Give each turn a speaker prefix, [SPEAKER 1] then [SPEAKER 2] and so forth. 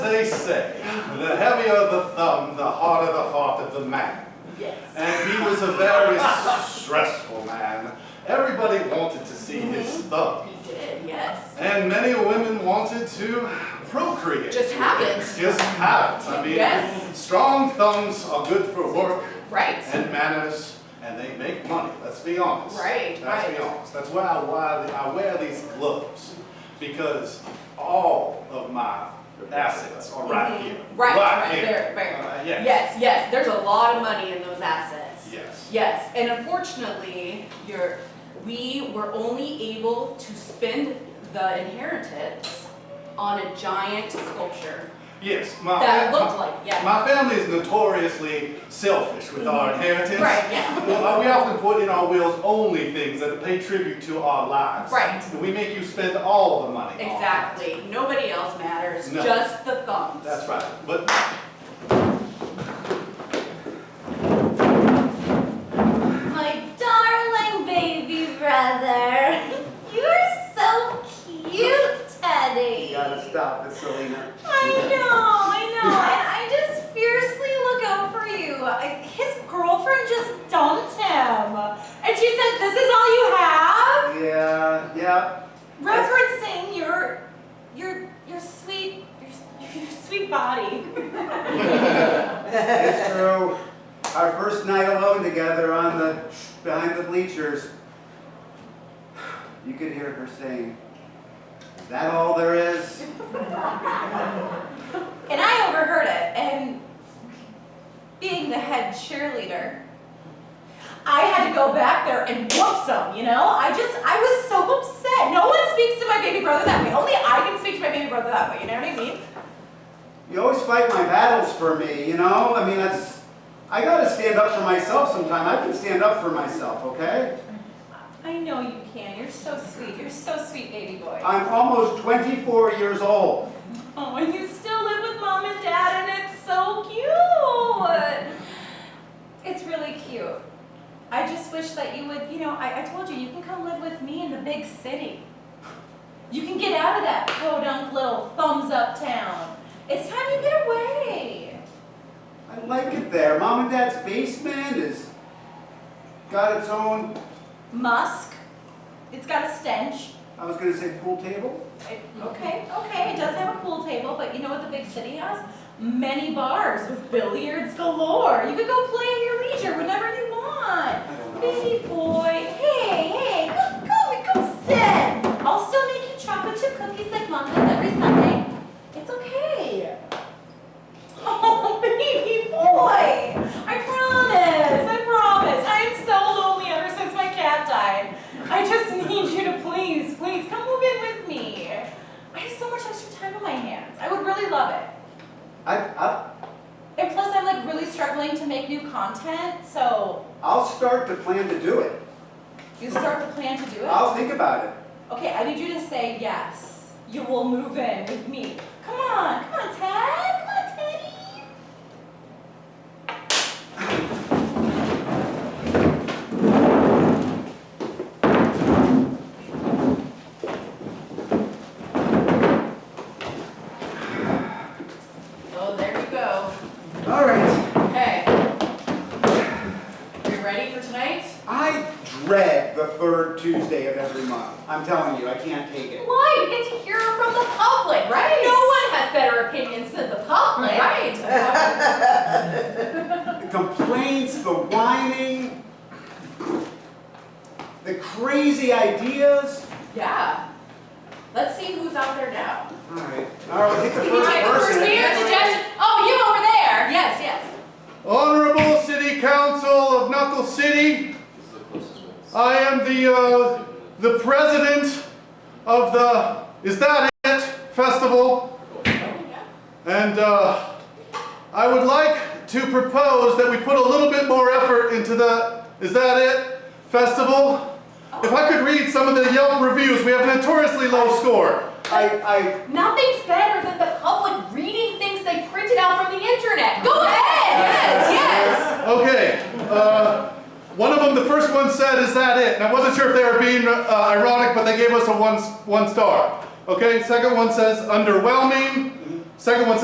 [SPEAKER 1] they say, the heavier the thumb, the harder the heart of the man.
[SPEAKER 2] Yes.
[SPEAKER 1] And he was a very stressful man. Everybody wanted to see his
[SPEAKER 2] Mm-hmm.
[SPEAKER 1] thumb.
[SPEAKER 2] He did, yes.
[SPEAKER 1] And many women wanted to procreate.
[SPEAKER 2] Just have it.
[SPEAKER 1] Just have it. I mean,
[SPEAKER 2] Yes.
[SPEAKER 1] strong thumbs are good for work
[SPEAKER 2] Right.
[SPEAKER 1] and manners, and they make money. Let's be honest.
[SPEAKER 2] Right,
[SPEAKER 1] Let's
[SPEAKER 2] right.
[SPEAKER 1] be honest. That's why I wear, the- I wear these gloves because all of my assets are right here.
[SPEAKER 2] Mm-hmm. Right,
[SPEAKER 1] Right
[SPEAKER 2] right
[SPEAKER 1] here.
[SPEAKER 2] there, right.
[SPEAKER 1] Uh, yes.
[SPEAKER 2] Yes, yes, there's a lot of money in those assets.
[SPEAKER 1] Yes.
[SPEAKER 2] Yes, and unfortunately, you're, we were only able to spend the inheritance on a giant sculpture
[SPEAKER 1] Yes. My,
[SPEAKER 2] that
[SPEAKER 1] my-
[SPEAKER 2] looked like, yeah.
[SPEAKER 1] my family is notoriously selfish with our inheritance.
[SPEAKER 2] Mm-hmm. Right, yeah.
[SPEAKER 1] Well, uh, we often put in our wills only things that pay tribute to our lives.
[SPEAKER 2] Right.
[SPEAKER 1] And we make you spend all the money. on it.
[SPEAKER 2] Exactly. Nobody else matters,
[SPEAKER 1] No.
[SPEAKER 2] just the thumbs.
[SPEAKER 1] That's right. But
[SPEAKER 3] My darling baby brother. You're so cute, Teddy.
[SPEAKER 1] stop this, Selena.
[SPEAKER 3] I know, I know, and I just fiercely look out for you. I- His girlfriend just dumped him, and she said, "This is all you have."
[SPEAKER 1] Yeah, yeah.
[SPEAKER 3] Referencing your, your, your sweet, your, your sweet body.
[SPEAKER 4] It's true. Our first night alone together on the behind the bleachers. You could hear her saying, "Is that all there is?"
[SPEAKER 3] And I overheard it, and being the head cheerleader, I had to go back there and whoop some, you know? I just, I was so upset. No one speaks to my baby brother that way. Only I can speak to my baby brother that way, you know what I mean?
[SPEAKER 4] You always fight my battles for me, you know? I mean, that's I gotta stand up for myself sometime. I can stand up for myself, okay?
[SPEAKER 3] I know you can. You're so sweet. You're so sweet, baby boy.
[SPEAKER 4] I'm almost 24 years old.
[SPEAKER 3] Oh, and you still live with mom and dad, and it's so cute. It's really cute. I just wish that you would, you know, I, I told you, you can come live with me in the big city. You can get out of that podunk little thumbs up town. It's time you get away.
[SPEAKER 4] I like it there. Mom and Dad's basement is got its own.
[SPEAKER 3] Musk. It's got a stench.
[SPEAKER 4] I was gonna say pool table.
[SPEAKER 3] It- Okay, okay, it does have a pool table, but you know what the big city has? Many bars with billiards galore. You could go play at your leisure whenever you want.
[SPEAKER 4] I don't know.
[SPEAKER 3] Baby boy, hey, hey, come, come, come sit. I'll still make you chocolate chip cookies like mom does every Sunday. It's okay. Oh, baby boy, I promise, I promise. I am so lonely ever since my cat died. I just need you to please, please come move in with me. I have so much extra time on my hands. I would really love it.
[SPEAKER 4] I, I,
[SPEAKER 3] And plus, I'm like really struggling to make new content, so
[SPEAKER 4] I'll start to plan to do it.
[SPEAKER 3] you start to plan to do it.
[SPEAKER 4] I'll think about it.
[SPEAKER 3] Okay, I need you to say yes. You will move in with me. Come on, come on, Ted, come on, Teddy.
[SPEAKER 2] Oh, there you go.
[SPEAKER 4] All right.
[SPEAKER 2] Okay. You ready for tonight?
[SPEAKER 4] I dread the third Tuesday of every month. I'm telling you, I can't take it.
[SPEAKER 3] Why? You get to hear from the public, right? No one has better opinions than the public.
[SPEAKER 2] Right.
[SPEAKER 4] The complaints, the whining, the crazy ideas.
[SPEAKER 2] Yeah. Let's see who's out there now.
[SPEAKER 4] All right. All right, hit the
[SPEAKER 2] Can you
[SPEAKER 4] first
[SPEAKER 2] take the first
[SPEAKER 4] person.
[SPEAKER 2] name of the judge? Oh, you over there. Yes, yes.
[SPEAKER 1] Honorable City Council of Knuckle City, I am the, uh, the president of the, is that it, festival? And, uh, I would like to propose that we put a little bit more effort into the, is that it, festival? If I could read some of the Yelp reviews, we have a notoriously low score.
[SPEAKER 4] I,
[SPEAKER 2] Nothing's better than the public reading things they printed out from the internet. Go ahead. Yes, yes.
[SPEAKER 1] Okay, uh, one of them, the first one said, "Is that it?" And I wasn't sure if they were being uh, ironic, but they gave us a one one star. Okay, second one says underwhelming. Second one says.